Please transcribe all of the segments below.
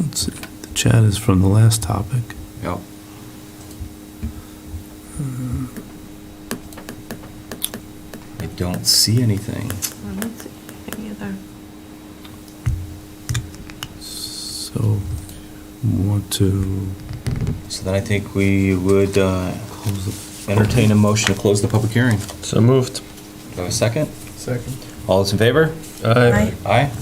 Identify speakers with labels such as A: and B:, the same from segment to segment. A: Let's see, the chat is from the last topic.
B: Yep. I don't see anything.
C: I don't see anything either.
A: So, want to
B: So then I think we would uh,
A: close the.
B: entertain a motion to close the public hearing.
D: So moved.
B: Do I have a second?
E: Second.
B: All those in favor?
D: Aye.
B: Aye.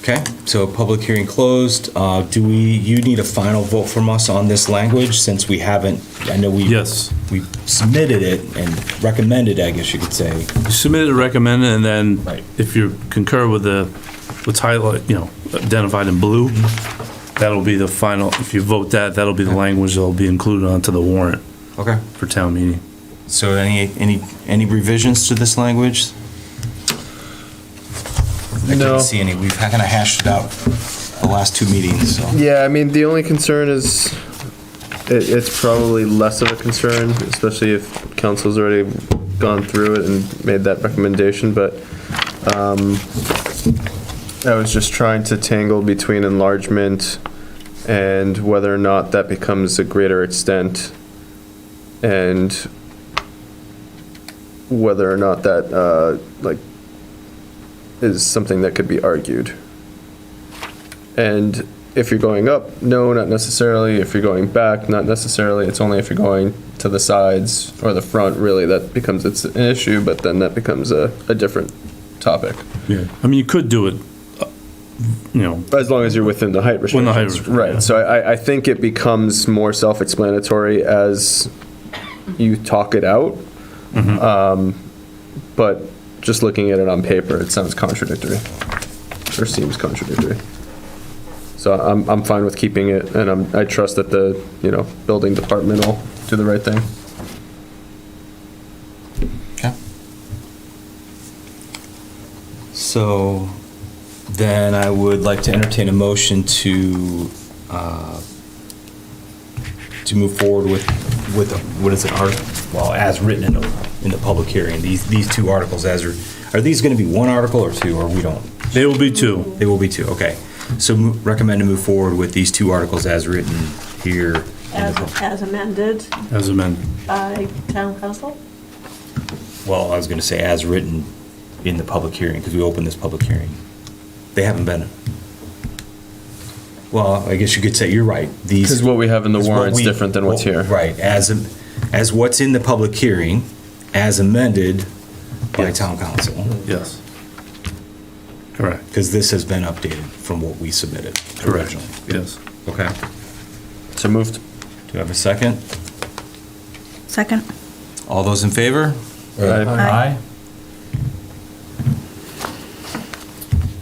B: Okay, so public hearing closed. Uh, Do we, you need a final vote from us on this language since we haven't, I know we.
A: Yes.
B: We submitted it and recommended, I guess you could say.
A: Submit a recommend, and then
B: Right.
A: if you concur with the, what's highlight, you know, identified in blue, that'll be the final, if you vote that, that'll be the language that'll be included onto the warrant
B: Okay.
A: for town meeting.
B: So any, any, any revisions to this language? I
D: No.
B: can't see any. We've kind of hashed it out the last two meetings, so.
D: Yeah, I mean, the only concern is, it, it's probably less of a concern, especially if council's already gone through it and made that recommendation, but, um, I was just trying to tangle between enlargement and whether or not that becomes a greater extent, and whether or not that, uh, like, is something that could be argued. And if you're going up, no, not necessarily. If you're going back, not necessarily. It's only if you're going to the sides or the front, really, that becomes it's an issue. But then that becomes a, a different topic.
A: Yeah. I mean, you could do it, uh, you know,
D: As long as you're within the height
A: Within
D: restrictions.
A: the height restriction,
D: right.
A: yeah.
D: So I, I- I think it becomes more self-explanatory as you talk it out.
A: Mm-hmm.
D: Um, but just looking at it on paper, it sounds contradictory or seems contradictory. So I'm, I'm fine with keeping it and I'm, I trust that the, you know, building department will do the right thing.
B: Okay. So then I would like to entertain a motion to, uh, to move forward with, with, what is it, art, well, as written in the, in the public hearing, these, these two articles as are, are these going to be one article or two, or we don't?
A: they will be two.
B: They will be two, okay. So mo- recommend to move forward with these two articles as written here. in the
C: As,
B: pub-
C: as amended
A: As amended.
C: by town council?
B: Well, I was going to say as written in the public hearing, because we opened this public hearing. They haven't been. Well, I guess you could say, you're right. These.
D: Because what we have in the
B: is what
D: warrant's
B: we-
D: different than what's here.
B: Right, as, am- as what's in the public hearing, as amended by town council,
A: Yes. Correct.
B: because this has been updated from what we submitted originally.
A: Yes.
B: Okay.
D: So moved.
B: Do you have a second?
F: Second.
B: All those in favor?
D: Aye.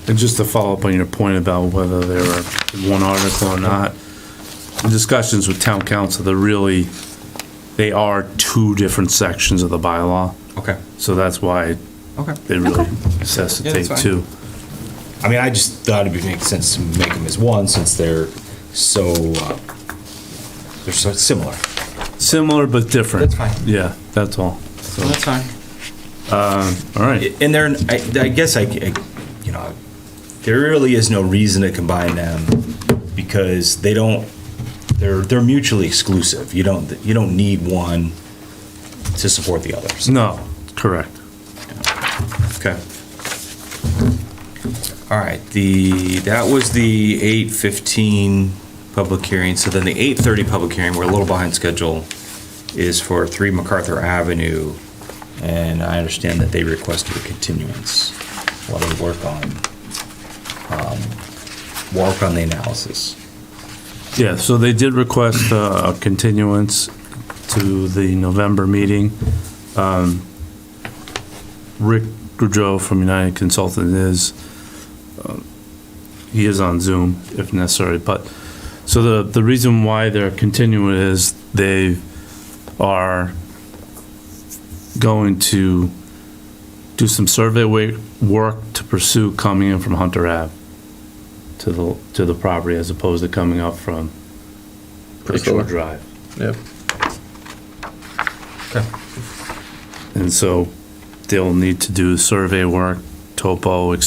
A: And just to follow up on your point about whether there are one article or not, in discussions with town council, they're really, they are two different sections of the bylaw,
B: Okay,
A: so that's why
B: okay.
A: they really
F: Okay.
B: Yeah,
A: necessitate
B: that's fine.
A: two.
B: I mean, I just thought it'd make sense to make them as one since they're so, uh, they're so similar.
A: Similar but different.
B: That's fine.
A: Yeah, that's all. So, uh,
B: That's fine.
A: all right.
B: And there, I, I guess I, I- you know, there really is no reason to combine them because they don't, they're, they're mutually exclusive. You don't, you don't need one to support the others.
A: No, correct.
B: Okay. All right, the, that was the eight fifteen public hearing, so then the eight thirty public hearing, we're a little behind schedule, is for three MacArthur Avenue, and I understand that they requested a continuance while they work on, um, work on the analysis.
A: Yeah, so they did request uh, a continuance to the November meeting. Um, Rick Goudreau from United Consultant is, um, he is on Zoom if necessary, but, so the, the reason why they're continuing is they are going to do some survey wa- work to pursue coming in from Hunter Ave to the, to the property as opposed to coming up from Lakeshore
D: Priscilla.
A: Drive.
D: Yep.
A: And so they'll need to do survey work, topo, et